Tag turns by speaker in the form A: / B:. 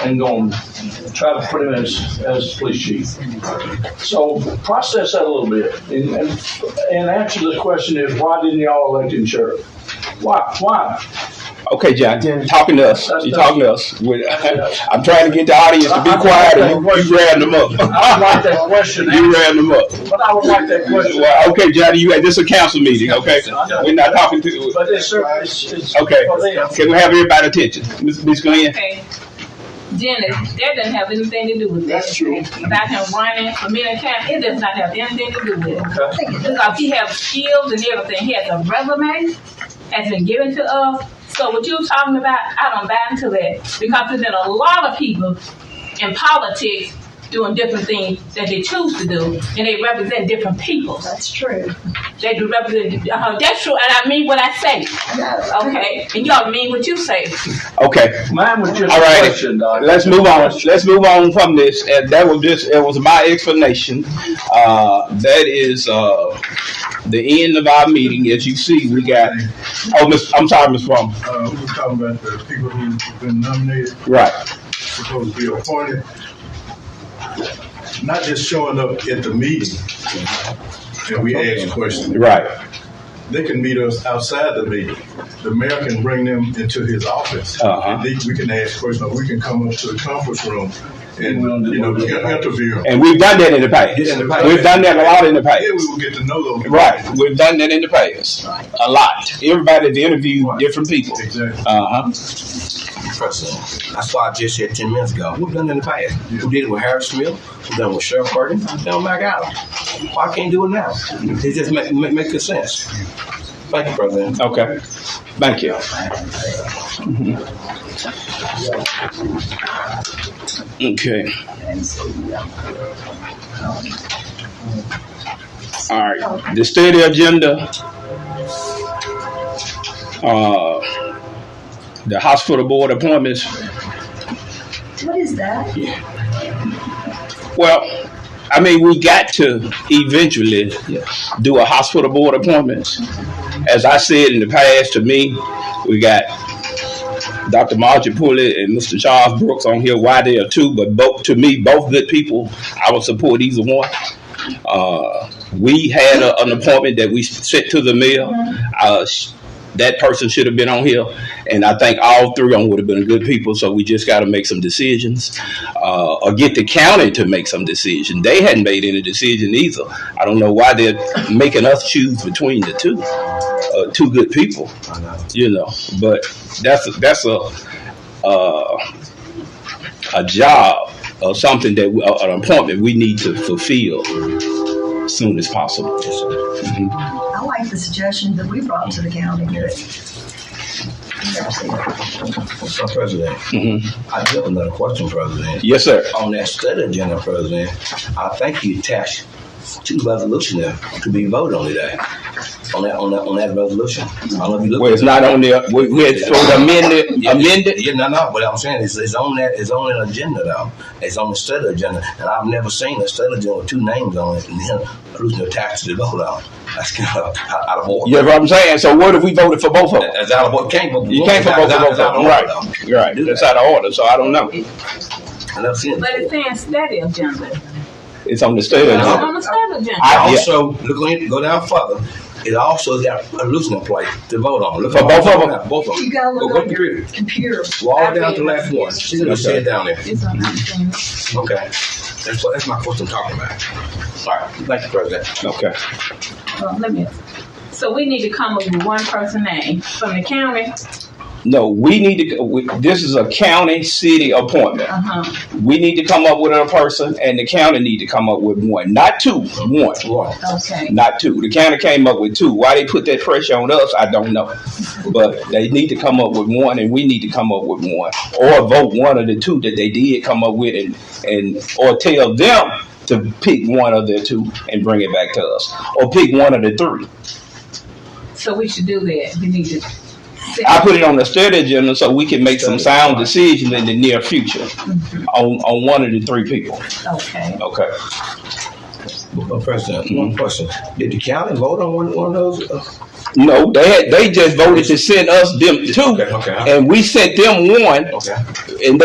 A: and going to try to put him as, as police chief. So process that a little bit. And, and, and answer the question is why didn't y'all elect him sheriff? Why? Why?
B: Okay, Jack, talking to us. You're talking to us. We- I'm trying to get the audience to be quiet, and you, you ran them up.
A: I would like that question answered,
B: You ran them up.
A: but I would like that question.
B: Well, okay, Johnny, you had this is a council meeting, okay? We're not talking to.
A: But it's, certainly- it's, it's
B: Okay,
A: for them.
B: can we have everybody's attention? Miss Miss Glenn?
C: Okay. Dennis, that doesn't have anything to do with
D: That's
C: that.
D: true.
C: About him running for mayor county, it does not have anything to do with it.
A: Okay.
C: Because he has skills and everything. He has a resume, has been given to us. So what you're talking about, I don't buy into that. Because there's been a lot of people in politics doing different things that they choose to do, and they represent different people.
D: That's true.
C: They do represent, uh, that's true, and I mean what I say, okay? And y'all mean what you say.
B: Okay,
A: Mine was just
B: all
A: a
B: right.
A: question, Doc.
B: Let's move on. Let's move on from this. And that was just, it was my explanation. Uh, that is, uh, the end of our meeting. As you see, we got, oh, Miss, I'm sorry, Miss Palmer.
E: Uh, we were talking about the people who've been nominated,
B: Right.
E: supposed to be appointed. Not just showing up at the meeting and we ask questions.
B: Right.
E: They can meet us outside the meeting. The mayor can bring them into his office.
B: Uh-huh.
E: And they- we can ask questions, or we can come up to the conference room and, you know, we can interview them.
B: And we've done that in the past.
E: Yeah, in the past.
B: We've done that a lot in the past.
E: Yeah, we will get to know those. people.
B: Right. We've done that in the past. A lot. Everybody's interviewed different people.
E: Exactly.
B: Uh huh.
F: president. That's why I just said 10 minutes ago. We've done it in the past. We did it with Harris Smith. We've done it with Sheriff Burton. We've done it with McAllen. Why can't do it now? It just make, make, make good sense. Thank you, President.
B: Okay. Thank you. Okay. All right. The study agenda. Uh, the hospital board appointments.
D: What is that?
B: Well, I mean, we got to eventually do a hospital board appointments. As I said in the past, to me, we got Dr. Margie Pulley and Mr. Charles Brooks on here. Why they are two, but both to me, both good people. I would support either one. Uh, we had a, an appointment that we sent to the mayor. Uh, sh- that person should have been on here, and I think all three of them would have been good people. So we just got to make some decisions, uh, or get the county to make some decision. They hadn't made any decision either. I don't know why they're making us choose between the two, uh, two good people. You know, but that's a, that's a uh, a job or something that we, uh, an appointment we need to fulfill soon as possible.
D: I like the suggestion that we brought to the county. Yes.
F: So, President, I do have another question, President.
B: Mm-hmm. Yes, sir.
F: On that study agenda, President, I think you attached two resolutions there to be voted on today. On that, on that, on that resolution. I don't know if you looked
B: Well, it's not on there. We, we had sort of amended, amended.
F: Yeah, no, no. But I'm saying it's, it's on that. It's on an agenda though. It's on the study agenda, and I've never seen a study agenda with two names on it and then losing the tax to vote on. That's kind of out out of order.
B: You know what I'm saying? So what if we voted for both of them?
F: That's out of order. Can't vote.
B: You can't for both
F: That's
B: of both of
F: out- that's out
B: them,
F: of
B: right?
F: order, though.
B: Right.
F: Do
B: That's
F: that.
B: out of order, so I don't know.
F: I never seen it.
C: But it's saying study agenda.
B: It's on the state.
C: It's
B: agenda.
C: on the study agenda.
B: I- yeah.
F: also look on, go down further. It also got a losing place to vote on. Look
B: For
F: on-
B: both of them?
F: Both of them.
D: You gotta
F: Go-
D: look
F: go
D: on
F: to
D: your
F: the-
D: computer.
F: Walk down to the last one. She's gonna sit down there.
C: It's on the
F: Okay. That's what that's my question I'm talking about. All right. Thank you, President.
B: Okay.
C: Well, let me. So we need to come up with one person name from the county.
B: No, we need to, we- this is a county city appointment.
C: Uh huh.
B: We need to come up with a person and the county need to come up with one, not two, one.
F: One.
C: Okay.
B: Not two. The county came up with two. Why they put that pressure on us, I don't know. But they need to come up with one, and we need to come up with one, or vote one of the two that they did come up with, and and or tell them to pick one of the two and bring it back to us, or pick one of the three.
C: So we should do that. We need to.
B: I put it on the study agenda so we can make some sound decisions in the near future on on one of the three people.
C: Okay.
B: Okay.
F: Well, President, one question. Did the county vote on one, one of those? uh,
B: No, they had, they just voted to send us them two,
F: Okay, okay.
B: and we sent them one,
F: Okay.
B: and they